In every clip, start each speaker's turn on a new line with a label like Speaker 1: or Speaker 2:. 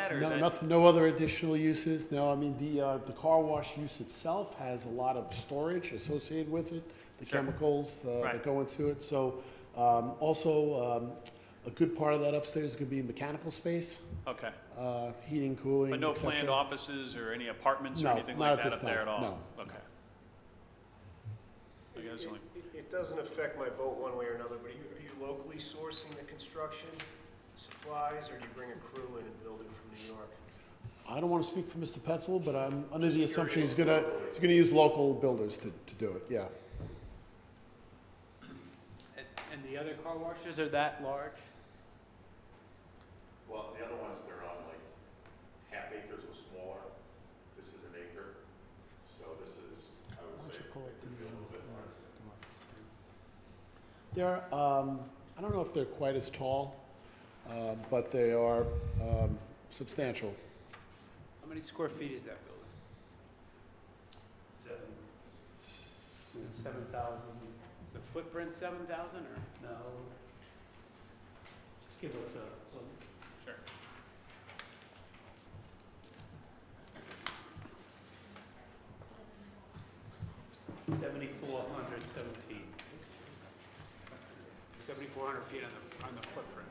Speaker 1: that, or is
Speaker 2: No,
Speaker 1: that?
Speaker 2: nothing, no other additional uses, no, I mean, the, uh, the car wash use itself has a lot of storage associated with it, the chemicals, uh,
Speaker 1: Right.
Speaker 2: that go into it, so, um, also, um, a good part of that upstairs is gonna be mechanical space,
Speaker 1: Okay,
Speaker 2: uh, heating, cooling,
Speaker 1: but
Speaker 2: et
Speaker 1: no
Speaker 2: cetera.
Speaker 1: planned offices or any apartments or
Speaker 2: No,
Speaker 1: anything
Speaker 2: not
Speaker 1: like
Speaker 2: at
Speaker 1: that
Speaker 2: this
Speaker 1: up there at
Speaker 2: time,
Speaker 1: all?
Speaker 2: no,
Speaker 1: Okay. I guess only-
Speaker 3: It- it- It doesn't affect my vote one way or another, but are you- are you locally sourcing the construction supplies, or do you bring a crew in and build it from New York?
Speaker 2: I don't wanna speak for Mr. Petzel, but I'm under the assumption he's gonna, he's gonna use local builders to, to do it, yeah.
Speaker 4: And, and the other car washes are that large?
Speaker 5: Well, the other ones, they're on like half acres or smaller. This is an acre, so this is, I would say, could be a little bit larger.
Speaker 2: They're, um, I don't know if they're quite as tall, uh, but they are, um, substantial.
Speaker 4: How many square feet is that building? Seven. Seven thousand. The footprint seven thousand or? No. Just give us a.
Speaker 1: Sure.
Speaker 4: Seventy-four hundred seventeen. Seventy-four hundred feet on the, on the footprint.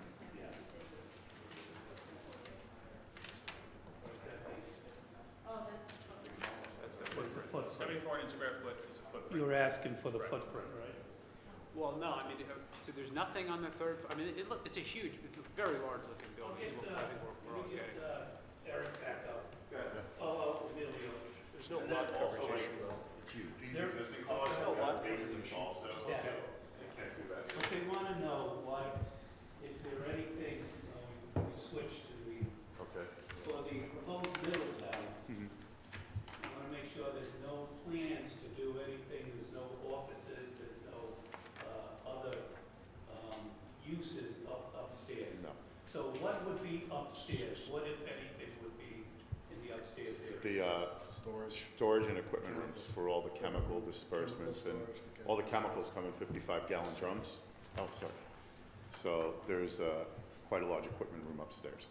Speaker 1: That's the footprint. Seventy-four hundred square foot is a
Speaker 4: You
Speaker 1: footprint.
Speaker 4: were asking for the footprint, right? Well, no, I mean, uh, so there's nothing on the third, f- I mean, it look, it's a huge, it's a very large looking building, is what I think we're, we're all getting. uh,
Speaker 3: There's no
Speaker 5: And
Speaker 3: lot
Speaker 5: then also,
Speaker 3: coverage
Speaker 5: like,
Speaker 3: issue, though.
Speaker 5: these existing cars
Speaker 4: there's
Speaker 5: have
Speaker 4: no
Speaker 5: got
Speaker 4: lot
Speaker 5: basements also, so
Speaker 4: Yeah.
Speaker 5: they can't do that.
Speaker 4: But they wanna know why, is there anything, uh, we switched to the,
Speaker 5: Okay.
Speaker 4: for the proposed Middletown?
Speaker 5: Mm-hmm.
Speaker 4: I wanna make sure there's no plans to do anything, there's no offices, there's no, uh, other, um, uses up, upstairs.
Speaker 5: No.
Speaker 4: So what would be upstairs? What, if anything, would be in the upstairs area?
Speaker 5: The, uh,
Speaker 2: Storage.
Speaker 5: storage and equipment rooms for all the chemical disbursements and all the chemicals come in fifty-five gallon drums. Oh, sorry. So there's, uh, quite a large equipment room upstairs.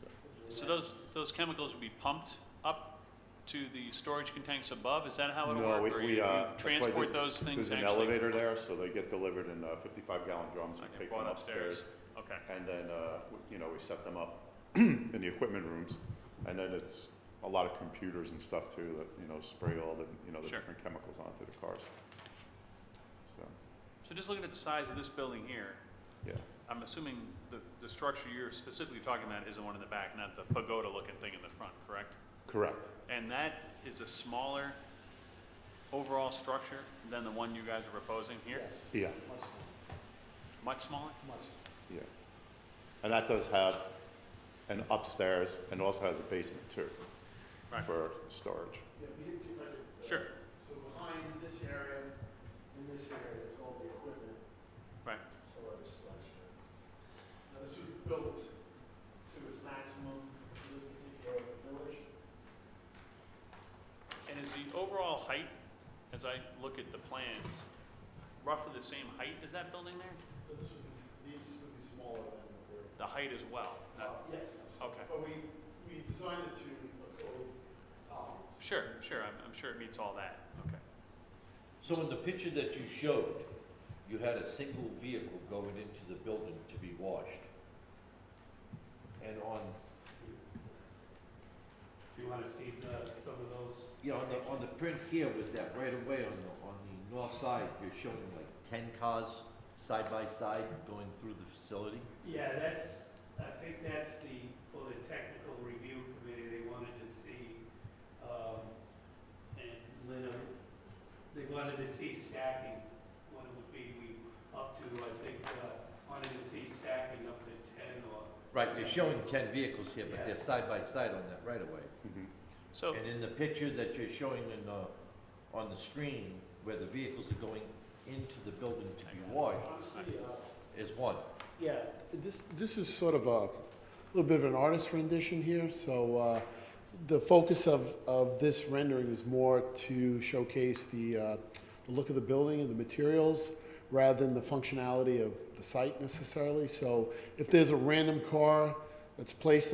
Speaker 5: So-
Speaker 1: So those, those chemicals would be pumped up to the storage tanks above? Is that how it'll
Speaker 5: No,
Speaker 1: work?
Speaker 5: we,
Speaker 1: or
Speaker 5: we,
Speaker 1: you-
Speaker 5: uh,
Speaker 1: you
Speaker 5: that's why
Speaker 1: Transport
Speaker 5: there's-
Speaker 1: those things
Speaker 5: There's an
Speaker 1: actually?
Speaker 5: elevator there, so they get delivered in uh, fifty-five gallon drums, we
Speaker 1: Okay,
Speaker 5: take
Speaker 1: brought
Speaker 5: them upstairs.
Speaker 1: Okay,
Speaker 5: And then, uh, w- you know, we set them up in the equipment rooms. And then it's a lot of computers and stuff too, that, you know, spray all the, you know, the
Speaker 1: Sure.
Speaker 5: different chemicals onto the cars. So,
Speaker 1: so just looking at the size of this building here,
Speaker 5: yeah,
Speaker 1: I'm assuming the, the structure you're specifically talking about is the one in the back, not the pagoda-looking thing in the front, correct?
Speaker 5: correct.
Speaker 1: And that is a smaller overall structure than the one you guys are proposing here?
Speaker 5: Yeah,
Speaker 1: Much smaller?
Speaker 5: yeah. And that does have an upstairs and also has a basement too
Speaker 1: Right.
Speaker 5: for storage.
Speaker 1: Sure,
Speaker 2: So behind this area, in this area is all the equipment
Speaker 1: right,
Speaker 2: storage slash. Now, this was built to its maximum for this particular village.
Speaker 1: and is the overall height, as I look at the plans, roughly the same height as that building there?
Speaker 2: But this would, these would be smaller than what we're.
Speaker 1: The height as well, not-
Speaker 2: Uh, Yes.
Speaker 1: okay.
Speaker 2: But we, we designed it to accommodate tolerance.
Speaker 1: Sure, sure, I'm, I'm sure it meets all that, okay.
Speaker 6: So in the picture that you showed, you had a single vehicle going into the building to be washed. And on,
Speaker 4: Do you wanna see the, some of those?
Speaker 6: you know, on the, on the print here with that right away on the, on the north side, you're showing like ten cars side by side going through the facility.
Speaker 4: Yeah, that's, I think that's the, for the technical review committee, they wanted to see, um, and Lynn, they wanted to see stacking, what it would be, we, up to, I think, uh, wanted to see stacking up to ten or.
Speaker 6: Right, they're showing ten vehicles here, but they're
Speaker 4: Yeah.
Speaker 6: side by side on that right away.
Speaker 5: Mhm.
Speaker 1: So,
Speaker 6: And in the picture that you're showing in the, on the screen, where the vehicles are going into the building to be washed,
Speaker 2: Honestly, uh,
Speaker 6: is one.
Speaker 2: Yeah, this, this is sort of a little bit of an artist rendition here, so uh, the focus of, of this rendering is more to showcase the, uh, the look of the building and the materials rather than the functionality of the site necessarily. So if there's a random car that's placed